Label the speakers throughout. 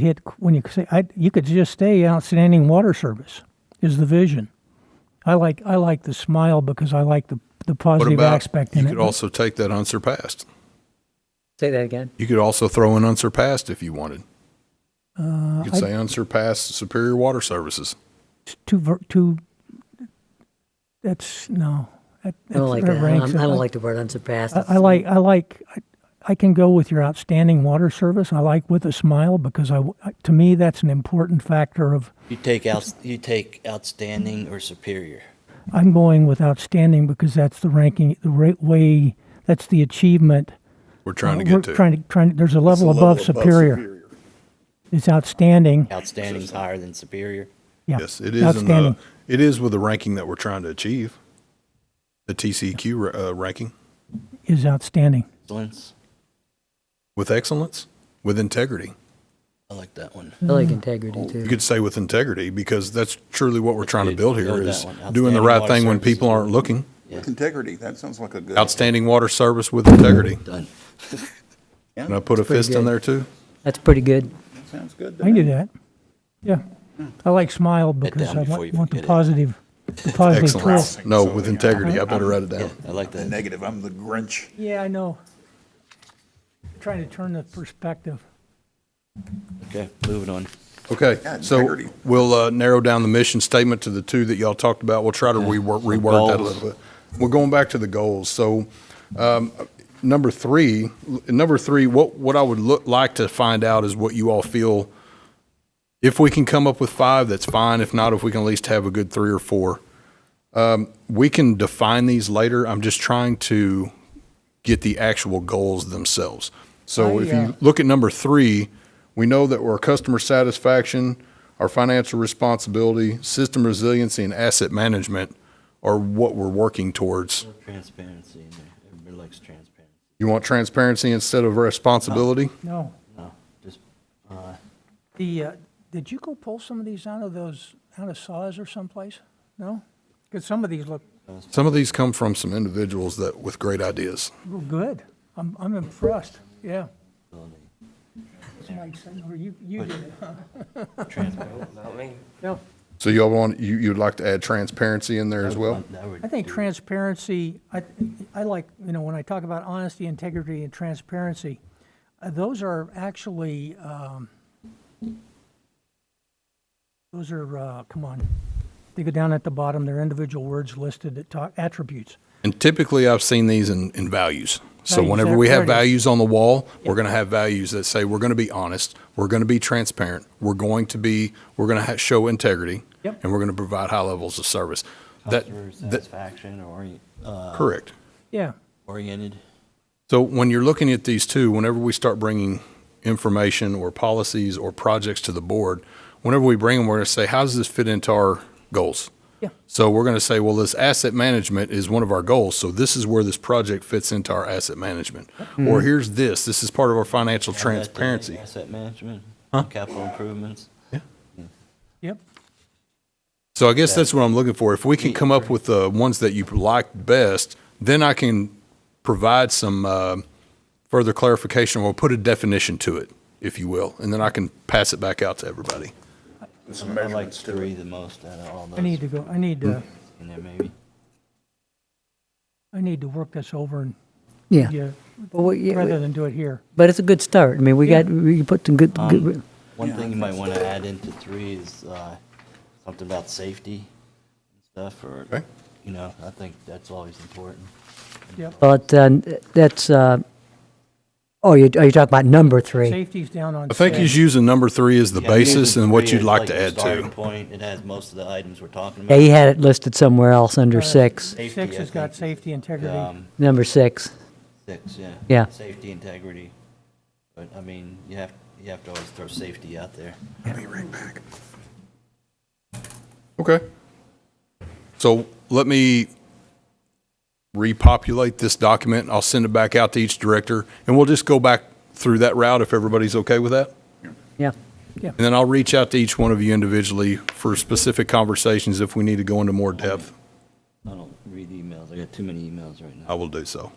Speaker 1: hit when you say I, you could just stay outstanding water service is the vision. I like I like the smile because I like the the
Speaker 2: What
Speaker 1: positive
Speaker 2: about,
Speaker 1: aspect
Speaker 2: you
Speaker 1: in
Speaker 2: could
Speaker 1: it.
Speaker 2: also take that unsurpassed.
Speaker 3: Say that again.
Speaker 2: You could also throw in unsurpassed if you wanted.
Speaker 1: uh,
Speaker 2: You could
Speaker 1: I-
Speaker 2: say unsurpassed Superior Water Services.
Speaker 1: it's too ver- too. That's no. That,
Speaker 3: I don't like
Speaker 1: that
Speaker 3: that. I
Speaker 1: ranks
Speaker 3: don't, I
Speaker 1: it.
Speaker 3: don't like the word unsurpassed.
Speaker 1: I, I like I like I, I can go with your outstanding water service. I like with a smile because I w- to me that's an important factor of
Speaker 4: You take out, you take outstanding or superior.
Speaker 1: I'm going with outstanding because that's the ranking the right way that's the achievement
Speaker 2: We're trying to
Speaker 1: Uh, we're
Speaker 2: get to.
Speaker 1: Trying to, trying, there's a level above superior. It's outstanding.
Speaker 4: Outstanding is higher than superior.
Speaker 1: Yeah.
Speaker 2: Yes, it is in the,
Speaker 1: Outstanding.
Speaker 2: it is with the ranking that we're trying to achieve. The TCQ ra- uh, ranking
Speaker 1: Is outstanding.
Speaker 4: Excellence.
Speaker 2: with excellence, with integrity.
Speaker 4: I like that one.
Speaker 3: I like
Speaker 1: Mm.
Speaker 3: integrity too.
Speaker 2: You could say with integrity because that's truly what we're trying to build here
Speaker 4: Build that
Speaker 2: is
Speaker 4: one.
Speaker 2: doing the
Speaker 4: Outstanding
Speaker 2: right
Speaker 4: water
Speaker 2: thing when
Speaker 4: services.
Speaker 2: people aren't looking.
Speaker 5: With integrity, that sounds like a good.
Speaker 2: Outstanding water service with integrity.
Speaker 4: Done.
Speaker 2: And I put a
Speaker 3: pretty
Speaker 2: fist in
Speaker 3: good.
Speaker 2: there too.
Speaker 3: That's pretty good.
Speaker 5: That Sounds good. to
Speaker 1: I can do
Speaker 5: me.
Speaker 1: that. Yeah. I like smile because
Speaker 4: down
Speaker 1: I
Speaker 4: before
Speaker 1: want,
Speaker 4: you
Speaker 1: want the
Speaker 4: forget it.
Speaker 1: positive, the positive twist.
Speaker 2: Excellence. No, with integrity. I
Speaker 4: Uh-huh.
Speaker 2: better write it down.
Speaker 4: I like
Speaker 5: The
Speaker 4: that.
Speaker 5: negative, I'm the Grinch.
Speaker 1: Yeah, I know. Trying to turn the perspective.
Speaker 4: Okay, moving on.
Speaker 2: Okay,
Speaker 5: Yeah,
Speaker 2: so
Speaker 5: integrity.
Speaker 2: we'll uh, narrow down the mission statement to the two that y'all talked about. We'll try to reword, reword that a
Speaker 4: goals.
Speaker 2: little bit. We're going back to the goals. So, um, number three, number three, what what I would look like to find out is what you all feel. If we can come up with five, that's fine. If not, if we can at least have a good three or four, um, we can define these later. I'm just trying to get the actual goals themselves. So
Speaker 1: I,
Speaker 2: if
Speaker 1: uh,
Speaker 2: you look at number three, we know that our customer satisfaction, our financial responsibility, system resiliency, and asset management are what we're working towards.
Speaker 4: Transparency. in there. Everybody likes transparency.
Speaker 2: You want transparency instead of responsibility?
Speaker 1: No.
Speaker 4: No, just, uh,
Speaker 1: The, uh, did you go pull some of these out of those, out of saws or someplace? No? Because some of these look
Speaker 2: Some of these come from some individuals that with great ideas.
Speaker 1: real good. I'm, I'm impressed. Yeah. Mike, or you, you did it.
Speaker 4: transparency.
Speaker 1: No.
Speaker 2: So y'all want you you'd like to add transparency in there as well?
Speaker 4: That would
Speaker 1: I think
Speaker 4: do it.
Speaker 1: transparency, I, I like, you know, when I talk about honesty, integrity, and transparency, uh, those are actually, um, those are, uh, come on, they go down at the bottom, they're individual words listed that talk, attributes.
Speaker 2: And typically, I've seen these in, in values. So
Speaker 1: Values,
Speaker 2: whenever
Speaker 1: there-
Speaker 2: we
Speaker 1: there
Speaker 2: have
Speaker 1: it is.
Speaker 2: values on the wall, we're going to have values that say we're going to be honest, we're going to be transparent, we're going to be, we're going to ha- show integrity,
Speaker 1: Yep.
Speaker 2: and we're going to provide high levels of service. That,
Speaker 4: Customer
Speaker 2: that
Speaker 4: satisfaction or, uh,
Speaker 2: correct.
Speaker 1: Yeah,
Speaker 4: oriented.
Speaker 2: So when you're looking at these two, whenever we start bringing information or policies or projects to the board, whenever we bring them, we're going to say, how does this fit into our goals?
Speaker 1: Yeah.
Speaker 2: So we're going to say, well, this asset management is one of our goals. So this is where this project fits into our asset management.
Speaker 4: Hmm.
Speaker 2: Or here's this. This is part of our financial transparency.
Speaker 4: Asset management, capital improvements.
Speaker 1: yep.
Speaker 2: So I guess that's what I'm looking for. If we can come up with the ones that you like best, then I can provide some uh, further clarification or put a definition to it, if you will, and then I can pass it back out to everybody.
Speaker 5: With some
Speaker 4: I like
Speaker 5: measurements to
Speaker 4: three
Speaker 5: it.
Speaker 4: the most out of all those.
Speaker 1: I need to go, I need to,
Speaker 4: in there maybe.
Speaker 1: I need to work this over and,
Speaker 3: Yeah.
Speaker 1: yeah,
Speaker 3: But, we, yeah,
Speaker 1: rather
Speaker 3: we-
Speaker 1: than do it here.
Speaker 3: but it's a good start. I mean, we got we put some good. good
Speaker 4: Um, One thing you might want to add into three is uh, something about safety and stuff, or,
Speaker 2: Okay.
Speaker 4: you know, I think that's always important.
Speaker 1: Yep.
Speaker 3: but uh, that's. Uh, oh, you, are you talking about number three?
Speaker 1: Safety's down on.
Speaker 2: I think he's using number three as the
Speaker 4: Yeah, using
Speaker 2: basis and what
Speaker 4: three
Speaker 2: you'd
Speaker 4: as
Speaker 2: like to
Speaker 4: your
Speaker 2: add
Speaker 4: starting
Speaker 2: to.
Speaker 4: Point, it has most of the items we're talking
Speaker 3: Yeah,
Speaker 4: about.
Speaker 3: he had it listed somewhere else under
Speaker 1: Uh,
Speaker 3: six.
Speaker 4: Safety,
Speaker 1: Six
Speaker 4: I
Speaker 1: has got
Speaker 4: think,
Speaker 1: safety, integrity.
Speaker 4: um,
Speaker 3: Number six.
Speaker 4: Six, yeah.
Speaker 3: Yeah.
Speaker 4: Safety, integrity, but, I mean, you have, you have to always throw safety out there.
Speaker 2: Okay. So let me repopulate this document. I'll send it back out to each director, and we'll just go back through that route if everybody's okay with that.
Speaker 3: Yeah.
Speaker 2: And then I'll reach out to each one of you individually for specific conversations if we need to go into more depth.
Speaker 4: I don't read emails, I got too many emails right now.
Speaker 2: I will do so.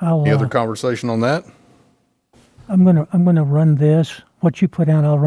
Speaker 1: I'll,
Speaker 2: Any
Speaker 1: uh,
Speaker 2: other conversation on that?
Speaker 1: I'm gonna, I'm gonna run this what you put down, I'll run